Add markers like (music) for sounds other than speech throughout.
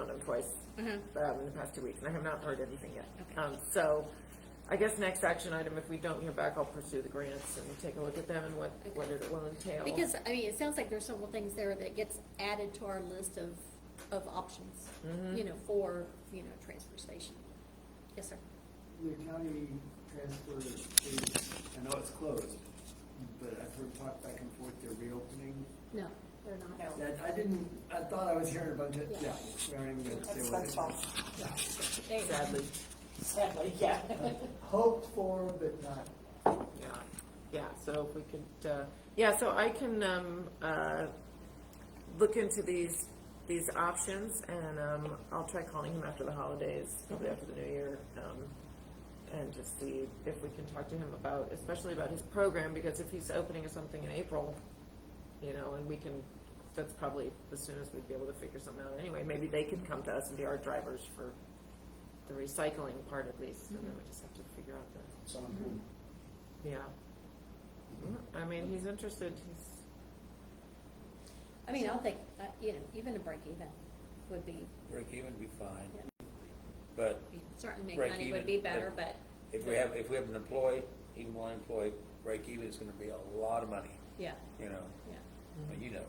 on them twice, Mm-hmm. um, in the past two weeks, and I have not heard anything yet. Um, so, I guess next action item, if we don't hear back, I'll pursue the grants and take a look at them and what, what it will entail. Because, I mean, it sounds like there's several things there that gets added to our list of, of options, Mm-hmm. you know, for, you know, transfer station. Yes, sir. The county transfer is, I know it's closed, but I've heard talk back and forth, they're reopening. No, they're not. That, I didn't, I thought I was hearing about it, Yeah. yeah, we aren't even gonna say That's what that's it is. false. There you go. Sadly, Sadly, yeah. Hoped for, but not. yeah, yeah, so if we could, uh, yeah, so I can, um, uh, look into these, these options, and, um, I'll try calling him after the holidays, probably after the new year, um, and just see if we can talk to him about, especially about his program, because if he's opening something in April, you know, and we can, that's probably the soonest we'd be able to figure something out anyway, maybe they can come to us and be our drivers for the recycling part at least, and then we just have to figure out the So I'm good. yeah. I mean, he's interested, he's, I mean, I'll think, uh, you know, even a break even would be, Break even would be fine, Yeah. but be- certainly make Break money would even, be better, yeah. but, if we have, if we have an employee, even one employee, break even is gonna be a lot of money, yeah, you know, yeah. but Mm-hmm. you know.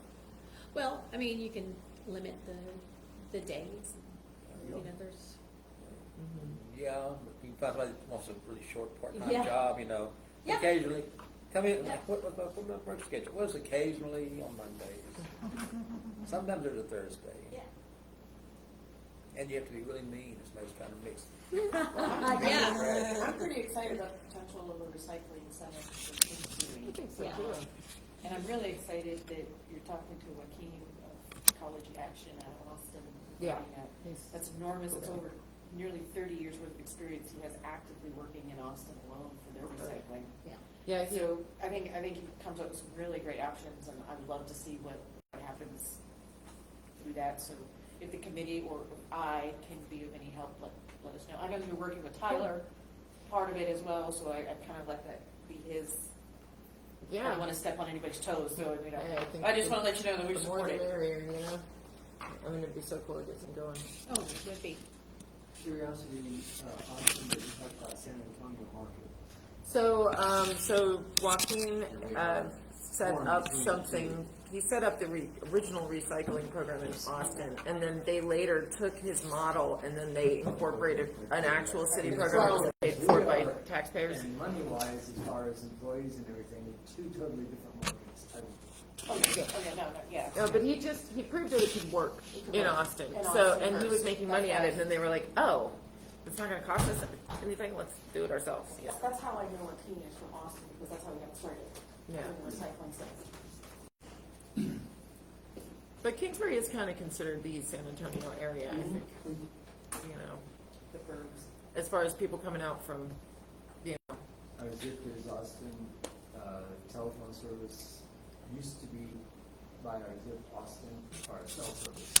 Well, I mean, you can limit the, the days, you know, there's, Yeah, but you find somebody that wants a really short Mm-hmm. Yeah. part-time job, you know, Yeah. occasionally, come in, Yeah. what, what, what about work schedule, what is occasionally on Mondays? (laughs) Sometimes there's a Thursday, yeah. and you have to be really mean, it's most kind of mixed. (laughs) (laughs) Yeah, I'm pretty excited about the potential of a recycling center for King Street. Yeah. And I'm really excited that you're talking to Joaquin of Ecology Action out of Austin. Yeah. That's enormous, it's over nearly thirty years worth of experience he has actively working in Austin alone for their recycling. yeah. yeah, he, So I think, I think he comes up with some really great options, and I'd love to see what what happens through that. So if the committee or I can be of any help, let, let us know. I know you're working with Tyler, part of it as well, so I, I kind of let that be his. I yeah. don't want to step on anybody's toes, so, you Hey, I think know, I just the- want to let you know that we The more support the it. merrier, you know? I mean, it'd be so cool to get some going. Oh, it would be, Curiosity, uh, Austin, that you talked about San Antonio market. So, um, so Joaquin, uh, set up something, he set up the re- original recycling program in Austin, and then they later took his model, and then they incorporated an actual city program that was paid for by taxpayers. And money-wise, as far as employees and everything, two totally different markets. I- Oh, yeah, oh, yeah, no, no, yeah. No, but he just, he proved that it could work in Austin. In So, Austin and he was first. making money at it, and then they were like, oh, it's not gonna cost us anything, let's do it ourselves, yeah. That's how I know Joaquin is from Austin, because that's how we got started. Yeah. doing Recycling stuff. But Kingsbury is kinda considered the San Antonio area, I think, you know, the birds. as far as people coming out from, you know, I was just there's Austin, uh, telephone service used to be by our zip Austin, our cell service.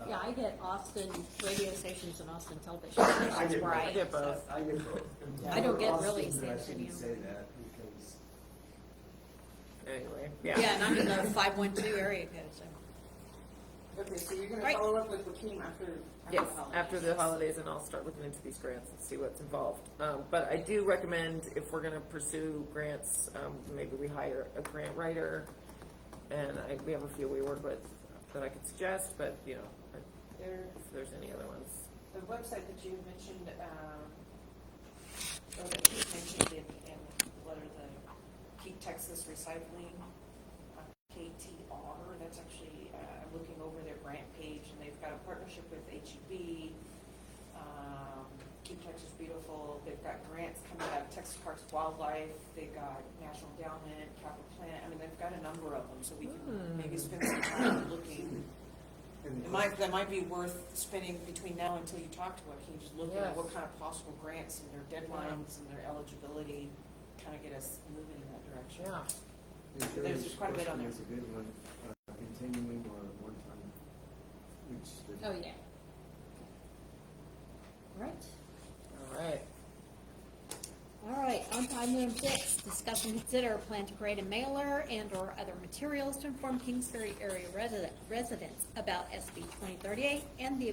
Uh, yeah, I get Austin radio stations and Austin television stations, get- right? I get both. I get both. I don't get Austin, really but I San shouldn't Antonio. say that because anyway, Yeah, yeah. and I'm in the five-one-two area code, so. Okay, so you're gonna Right. follow up with Joaquin after, after Yes, the holiday? after the holidays, and I'll start looking into these grants and see what's involved. Um, but I do recommend if we're gonna pursue grants, um, maybe we hire a grant writer. And I, we have a few we work with that I could suggest, but, you know, I- There, if there's any other ones. the website that you mentioned, um, or that you mentioned in, in what are the Keep Texas Recycling, uh, KTR, that's actually, uh, I'm looking over their grant page and they've got a partnership with HEB, um, Keep Texas Beautiful, they've got grants coming out of Texas Parks Wildlife, they've got National Endowment, Capital Planet, I mean, they've got a number of them, so we can maybe spend some time looking. And It might, that might be worth spending between now until you talk to Joaquin, just looking at what Yes. kind of possible grants and their deadlines and their eligibility, kind of get us moving in that direction. Yeah, the there's third quite a bit question on there. is a good one, uh, continuing or one time, which the Oh, yeah. Right. all right. All right, on to item number six, discuss and consider a plan to create a mailer and/or other materials to inform Kingsbury area resident, residents about SB twenty thirty-eight and the